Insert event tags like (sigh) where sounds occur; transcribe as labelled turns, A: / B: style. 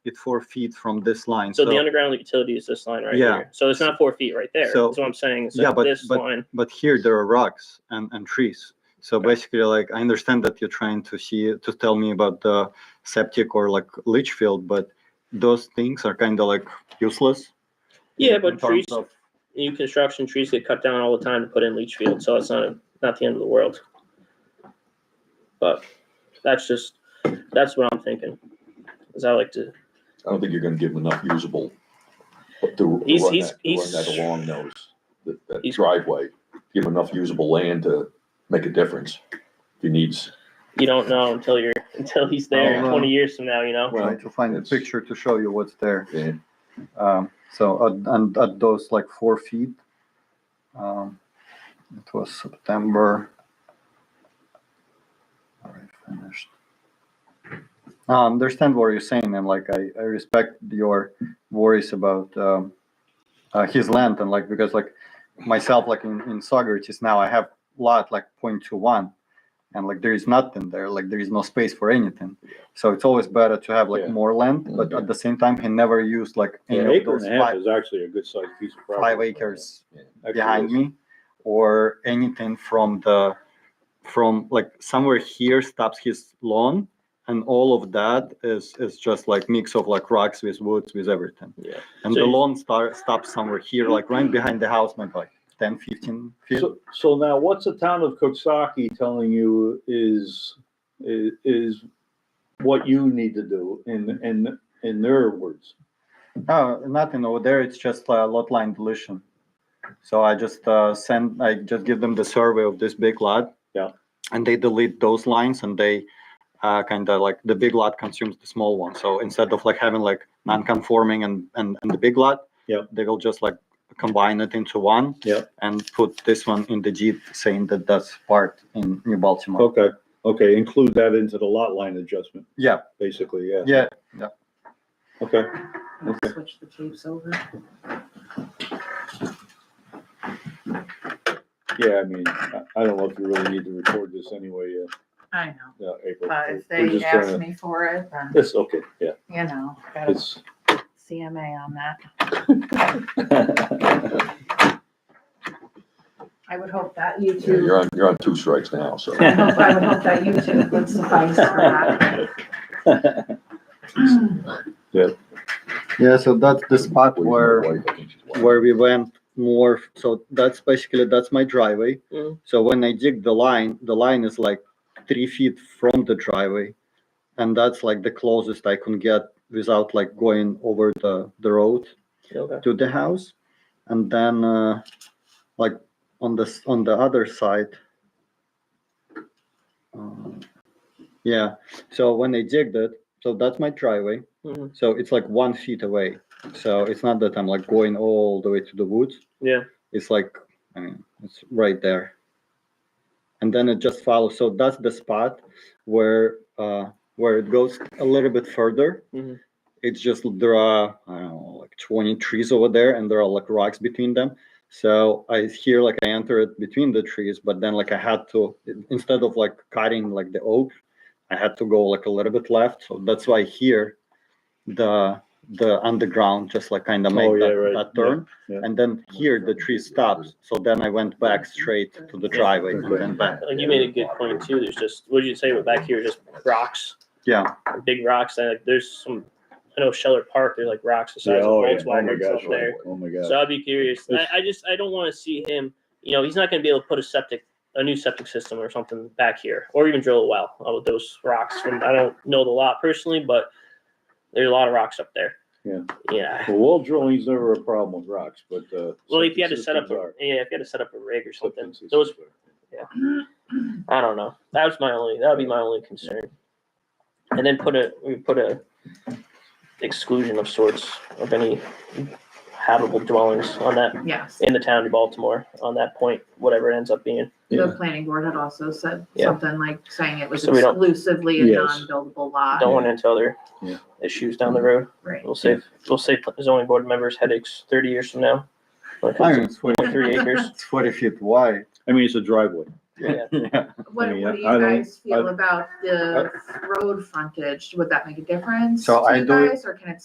A: it four feet from this line.
B: So the underground utility is this line right
A: Yeah.
B: here. So it's not four feet right there.
A: So-
B: That's what I'm saying. So
A: Yeah, but-
B: this
A: but-
B: line,
A: but here there are rocks and, and trees. So basically, like I understand that you're trying to see to tell me about the septic or like leach field, but those things are kind of like useless.
B: yeah,
A: in- in
B: but trees,
A: terms of-
B: new construction trees get cut down all the time to put in leach field, so it's not not the end of the world. But that's just that's what I'm thinking. Because I like to.
C: I don't think you're gonna give him enough usable to- to run
B: He's- he's-
C: that, to run
B: he's-
C: that along those, that, that
B: He's-
C: driveway. Give him enough usable land to make a difference. If he needs,
B: You don't know until you're (laughs) until he's there
A: Well, uh,
B: 20 years from now. You know.
C: Well,
A: Trying to find a
C: it's-
A: picture to show you what's there.
C: yeah,
A: Um, so at, and at those like four feet, um, it was September. All right, finished. I understand what you're saying, and like I, I respect your worries about um, uh, his land, and like because like myself, like in in Socrates now, I have lot like 0.21 and like there is nothing there like there is no space for anything so it's always better to have like
D: Yeah.
A: more land but at the same time he never used like
D: An
A: any of
D: acre
A: those
D: and a half
A: five,
D: is actually a good sized piece of property.
A: five acres
D: Actually,
A: behind
D: it's-
A: me or anything from the from like somewhere here stops his lawn and all of that is is just like mix of like rocks with woods with everything
D: Yeah.
A: and
B: So
A: the
B: you-
A: lawn start stops somewhere here like right behind the house maybe like 10 15 feet
D: So, so now what's the town of Koksaki telling you is, i- is what you need to do in, in, in their words?
A: No, nothing over there. It's just a lot line deletion. So I just uh, send, I just give them the survey of this big lot.
D: Yeah.
A: And they delete those lines and they uh, kind of like the big lot consumes the small one. So instead of like having like non-conforming and and, and the big lot,
D: Yeah.
A: they will just like combine it into one.
D: Yeah.
A: And put this one in the deed saying that that's part in New Baltimore.
D: Okay, okay, include that into the lot line adjustment,
A: Yeah.
D: basically, yeah.
A: Yeah.
D: Okay,
E: Switch the tapes over.
D: yeah, I mean, I, I don't know if you really need to record this anyway, uh,
E: I know,
D: yeah, April.
E: but if
D: We're
E: Uh, they
D: just trying
E: ask
D: to-
E: me for it, then,
D: It's okay, yeah,
E: you know, got a (laughs)
D: it's, (laughs)
E: CMA on that. I would hope that
C: yeah,
E: YouTube,
C: you're on, you're on two strikes
A: (laughs)
C: now, so.
E: I hope- I would hope that YouTube would suffice for that.
A: Yeah. So that's the spot
C: Please, my
A: where.
C: wife, I think she's watching.
A: where we went more f- so that's basically that's my driveway
B: Mhm.
A: so when i dig the line the line is like three feet from the driveway and that's like the closest i can get without like going over the the road
B: Okay.
A: to the house and then uh like on the s- on the other side uh, yeah so when i digged it so that's my driveway
B: Mhm.
A: so it's like one feet away so it's not that i'm like going all the way to the woods
B: Yeah.
A: it's like i mean it's right there and then it just follows so that's the spot where uh where it goes a little bit further
D: Mm-hmm.
B: Mhm.
A: it's just there are i don't know like 20 trees over there and there are like rocks between them so i here like i enter it between the trees but then like i had to instead of like cutting like the oak i had to go like a little bit left so that's why here the the underground just like kind of
D: Oh,
A: make
D: yeah,
A: that,
D: right.
A: that
D: Yeah,
A: turn
D: yeah.
A: and then here the tree stops so then i went back straight to the driveway and then back
B: Like you made a good point too. There's just what did you say? But back here, just rocks,
A: yeah
B: big rocks. And like, there's some. I know Scheller Park. There's like rocks the
D: yeah,
B: size of
D: oh, yeah, oh my
B: Volkswagens up
D: gosh,
B: there.
D: oh my gosh.
B: So I'd be curious. I,
D: It's-
B: I just I don't want to see him. You know, he's not going to be able to put a septic, a new septic system or something back here, or even drill a well uh, with those rocks. From I don't know the lot personally, but there's a lot of rocks up there.
D: Yeah.
B: Yeah.
D: Well, wall drilling's never a problem with rocks, but, uh.
B: Well, if you had to
D: septic
B: set up,
D: systems
B: a,
D: are.
B: yeah, if you had to set up a rig or
D: Septic
B: something,
D: systems
B: those
D: are.
B: I don't know. That was my only. That would be my only concern. And then put a we put a exclusion of sorts of any habitable dwellings on that
E: Yes,
B: in the town of Baltimore on that point, whatever it ends up being.
E: the planning board had also said
B: Yeah.
E: something like saying it was
B: So we don't-
E: exclusively a
D: Yes.
E: non-buildable lot.
B: don't run into other
D: Yeah.
B: issues down the road.
E: Right.
B: We'll save we'll save zoning board members headaches thirty years from now. Like
A: I mean, it's 40,
B: three acres.
A: it's 40 feet wide (laughs)
D: I mean, it's a driveway.
B: Yeah.
A: Yeah.
E: What,
D: mean,
E: what do you
D: I don't-
E: guys feel about the road frontage? Would that make a difference
A: So
E: to
A: I
E: you
A: do-
E: guys, or can it